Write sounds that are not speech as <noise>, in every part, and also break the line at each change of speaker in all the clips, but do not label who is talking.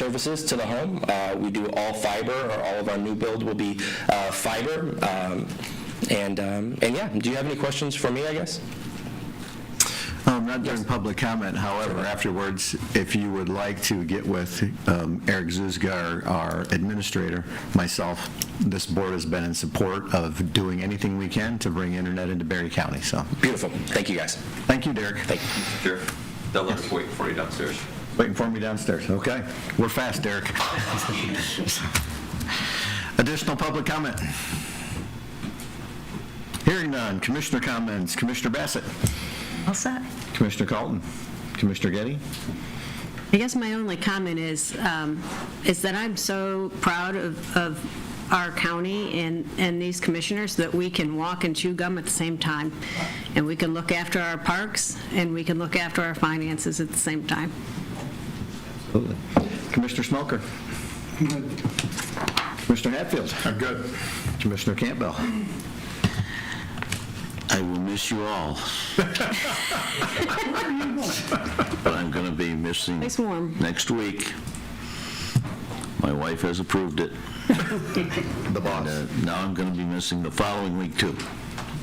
services to the home. Uh, We do all fiber, or all of our new build will be uh, fiber. Um, And, um, and yeah, do you have any questions for me, I guess?
Um, Not during public comment, however, afterwards, if you would like to get with um, Eric Zuzga, our- our administrator, myself, this board has been in support of doing anything we can to bring internet into Berry County, so,
Beautiful. Thank you, guys.
thank you, Derek.
Thank you.
Sure. They'll let us wait for you downstairs.
Waiting for me downstairs, okay? We're fast, Derek. Additional public comment? Hearing none, commissioner comments, Commissioner Bassett,
All set.
Commissioner Carlton, Commissioner Getty?
I guess my only comment is, um, is that I'm so proud of, of our county and, and these commissioners that we can walk and chew gum at the same time, and we can look after our parks, and we can look after our finances at the same time.
Commissioner Smoker? Commissioner Hatfield? I'm good. Commissioner Campbell?
I will miss you all. But I'm going to be missing
Nice warm.
next week. My wife has approved it.
<laughs> The
And uh, now I'm going to be missing the following week, too.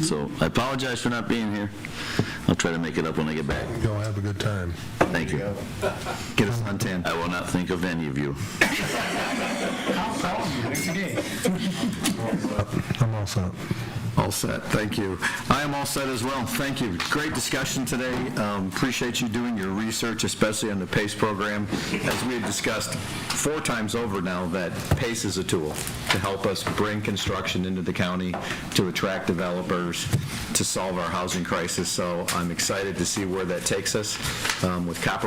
So I apologize for not being here. I'll try to make it up when I get back.
Go have a good time.
Thank you.
Get us on 10.
I will not think of any of you.
I'm all set.
All set, thank you. I am all set as well, thank you. Great discussion today. Um, Appreciate you doing your research, especially on the PACE program. As we have discussed four times over now, that PACE is a tool to help us bring construction into the county, to attract developers, to solve our housing crisis. So I'm excited to see where that takes us um, with Copper